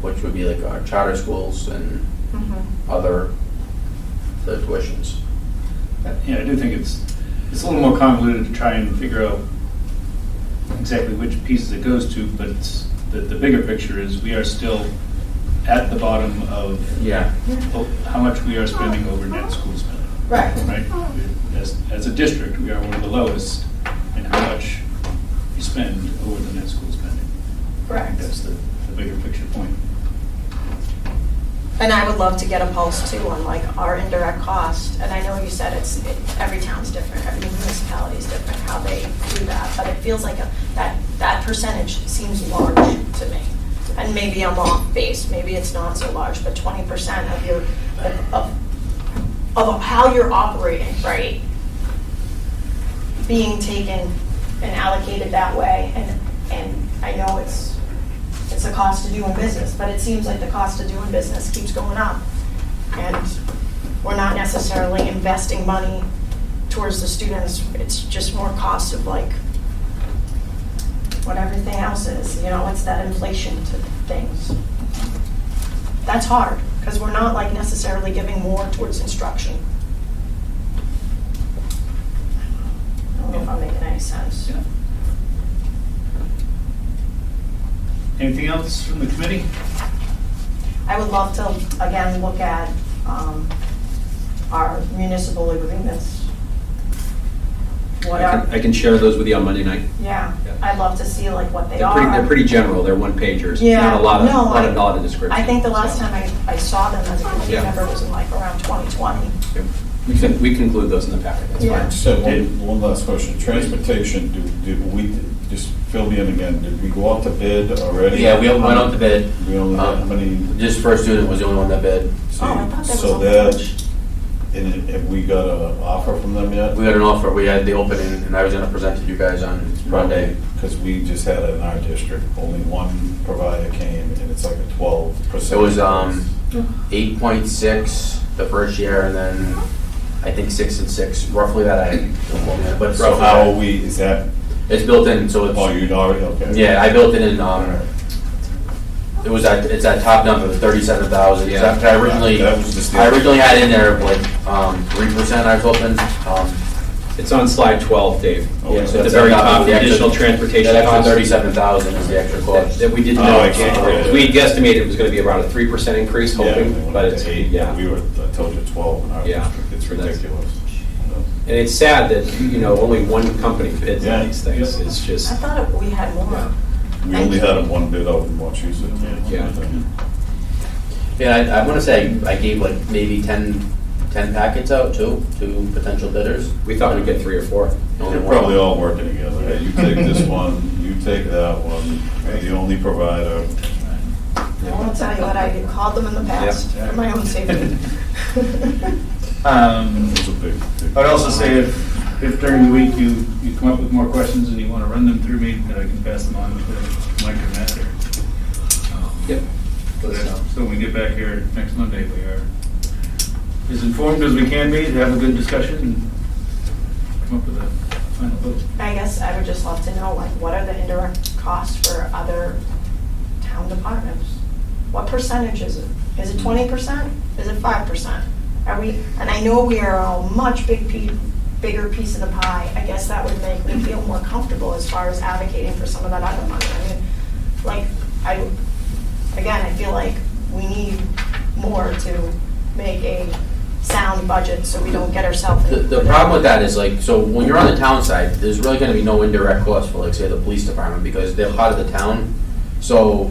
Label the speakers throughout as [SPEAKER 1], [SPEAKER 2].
[SPEAKER 1] which would be like our charter schools and
[SPEAKER 2] Mhm.
[SPEAKER 1] other, the tuitions.
[SPEAKER 3] Yeah, I do think it's, it's a little more convoluted to try and figure out exactly which pieces it goes to, but it's, the, the bigger picture is we are still at the bottom of
[SPEAKER 1] Yeah.
[SPEAKER 3] o- how much we are spending over net school spending,
[SPEAKER 2] Right.
[SPEAKER 3] right? As, as a district, we are one of the lowest in how much you spend over the net school spending. I think
[SPEAKER 2] Correct.
[SPEAKER 3] that's the, the bigger picture point.
[SPEAKER 2] And I would love to get a pulse too on like our indirect cost. And I know you said it's, it- every town's different, every municipality is different, how they do that. But it feels like a- that, that percentage seems large to me. And maybe I'm off base, maybe it's not so large, but twenty percent of your, of, of how you're operating, right? Being taken and allocated that way. And, and I know it's it's the cost of doing business, but it seems like the cost of doing business keeps going up. And we're not necessarily investing money towards the students, it's just more cost of like what everything else is, you know, it's that inflation to things. That's hard, because we're not like necessarily giving more towards instruction. I don't know if I'm making any sense.
[SPEAKER 3] Yeah. Anything else from the committee?
[SPEAKER 2] I would love to, again, look at um, our municipal agreements. What
[SPEAKER 4] I
[SPEAKER 2] are,
[SPEAKER 4] can, I can share those with you on Monday night.
[SPEAKER 2] yeah,
[SPEAKER 4] Yeah.
[SPEAKER 2] I'd love to see like what they
[SPEAKER 4] They're
[SPEAKER 2] are.
[SPEAKER 4] pretty, they're pretty general, they're one pagers,
[SPEAKER 2] Yeah,
[SPEAKER 4] not a lot of,
[SPEAKER 2] no,
[SPEAKER 4] not
[SPEAKER 2] I-
[SPEAKER 4] a lot of description.
[SPEAKER 2] I think the last
[SPEAKER 4] so.
[SPEAKER 2] time I, I saw them as a committee
[SPEAKER 4] Yeah.
[SPEAKER 2] member was in like around 2020.
[SPEAKER 4] Yeah. We can, we can include those in the packet, that's
[SPEAKER 2] Yeah.
[SPEAKER 4] fine.
[SPEAKER 5] So one, one last question, transportation, do, did we, just fill me in again, did we go out to bid already?
[SPEAKER 1] Yeah, we went out to bid. Um,
[SPEAKER 5] We only had how many,
[SPEAKER 1] This first student was the only one that bid.
[SPEAKER 2] Oh, I thought that was
[SPEAKER 5] so
[SPEAKER 2] on
[SPEAKER 5] that,
[SPEAKER 2] lunch.
[SPEAKER 5] and have we got an offer from them yet?
[SPEAKER 1] We had an offer, we had the opening, and I was gonna present to you guys on Monday.
[SPEAKER 5] Because we just had it in our district, only one provider came, and it's like a twelve
[SPEAKER 1] It
[SPEAKER 5] percent.
[SPEAKER 1] was, um, eight point six the first year, and then I think six and six, roughly that, I don't know, but it's
[SPEAKER 5] So
[SPEAKER 1] roughly
[SPEAKER 5] how are
[SPEAKER 1] that.
[SPEAKER 5] we, is that,
[SPEAKER 1] It's built in, so
[SPEAKER 5] oh,
[SPEAKER 1] it's,
[SPEAKER 5] you'd already, okay.
[SPEAKER 1] yeah, I built it in, um, it was at, it's at top number, thirty-seven thousand,
[SPEAKER 4] Yeah.
[SPEAKER 1] I originally,
[SPEAKER 5] That was just the-
[SPEAKER 1] I originally had in there like, um, three percent I was hoping, um,
[SPEAKER 4] It's on slide 12, Dave.
[SPEAKER 5] Okay.
[SPEAKER 4] At the very top, the additional transportation
[SPEAKER 1] That
[SPEAKER 4] cost.
[SPEAKER 1] extra thirty-seven thousand is the extra
[SPEAKER 4] That
[SPEAKER 1] cost.
[SPEAKER 4] that we didn't
[SPEAKER 5] Oh,
[SPEAKER 4] know
[SPEAKER 5] I
[SPEAKER 4] in
[SPEAKER 5] see.
[SPEAKER 4] January. We guesstimated it was gonna be about a 3% increase,
[SPEAKER 5] Yeah, they
[SPEAKER 4] hoping,
[SPEAKER 5] went
[SPEAKER 4] but
[SPEAKER 5] up
[SPEAKER 4] it's,
[SPEAKER 5] to eight.
[SPEAKER 4] yeah.
[SPEAKER 5] We were, I told you twelve in our
[SPEAKER 4] Yeah.
[SPEAKER 5] district, it's
[SPEAKER 4] That's-
[SPEAKER 5] ridiculous.
[SPEAKER 4] And it's sad that, you know, only one company bids
[SPEAKER 5] Yeah.
[SPEAKER 4] on these things,
[SPEAKER 5] Yeah.
[SPEAKER 4] it's
[SPEAKER 2] I
[SPEAKER 4] just,
[SPEAKER 2] thought it- we had
[SPEAKER 4] Yeah.
[SPEAKER 2] more.
[SPEAKER 5] We only had them one bid out in Wachusett.
[SPEAKER 4] Yeah.
[SPEAKER 1] Yeah, I, I wanna say I gave like maybe 10 10 packets out too, to potential bidders.
[SPEAKER 4] we thought we'd get three or four.
[SPEAKER 1] Only
[SPEAKER 5] They're
[SPEAKER 1] one.
[SPEAKER 5] probably all working together. Hey, You take this one, you take that one, you're the only provider.
[SPEAKER 2] I will tell you what, I had called them in the past
[SPEAKER 3] Yeah.
[SPEAKER 2] for my own safety.
[SPEAKER 3] Um,
[SPEAKER 5] It's a big, big.
[SPEAKER 3] I'd also say if, if during the week you, you come up with more questions and you want to run them through me, that I can pass them on to Mike or Matt or.
[SPEAKER 4] Yep.
[SPEAKER 3] So when we get back here next Monday, we are as informed as we can be to have a good discussion and come up with a final vote.
[SPEAKER 2] I guess I would just love to know, like, what are the indirect costs for other town departments? What percentage is it? Is it twenty percent? Is it five percent? Are we, and I know we are a much big pe- bigger piece of the pie. I guess that would make me feel more comfortable as far as advocating for some of that other money. I mean, like, I, again, I feel like we need more to make a sound budget so we don't get ourselves.
[SPEAKER 1] The, the problem with that is like, so when you're on the town side, there's really gonna be no indirect cost for like, say, the police department, because they're part of the town. So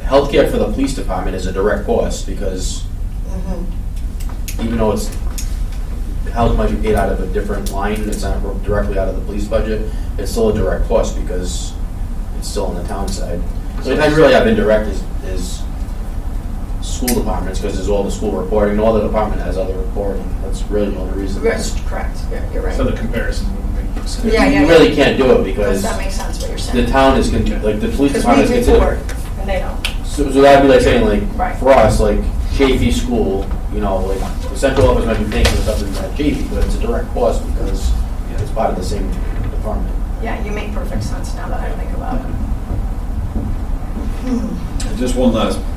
[SPEAKER 1] healthcare for the police department is a direct cost, because
[SPEAKER 2] Mhm.
[SPEAKER 1] even though it's, health might be paid out of a different line, it's not directly out of the police budget, it's still a direct cost because it's still on the town side. So it doesn't really have indirect is, is school departments, because there's all the school reporting, and all the department has other reporting, that's really the only reason.
[SPEAKER 2] Yes, mm-hmm. correct, Yeah, you're right.
[SPEAKER 3] So the comparison wouldn't make sense.
[SPEAKER 2] Yeah, yeah,
[SPEAKER 1] You
[SPEAKER 2] yeah.
[SPEAKER 1] really can't do it because
[SPEAKER 2] Does that make sense what you're
[SPEAKER 1] the
[SPEAKER 2] saying?
[SPEAKER 1] town is, con- like, the police department
[SPEAKER 2] Because
[SPEAKER 1] is
[SPEAKER 2] we
[SPEAKER 1] considered.
[SPEAKER 2] report, and they don't.
[SPEAKER 1] So, so that'd be like saying like,
[SPEAKER 2] Right.
[SPEAKER 1] for us, like Chafee School, you know, like the central office might be paying for something at Chafee, but it's a direct cost because it's part of the same department.
[SPEAKER 2] Yeah, you make perfect sense now that I think about it.
[SPEAKER 5] Just one last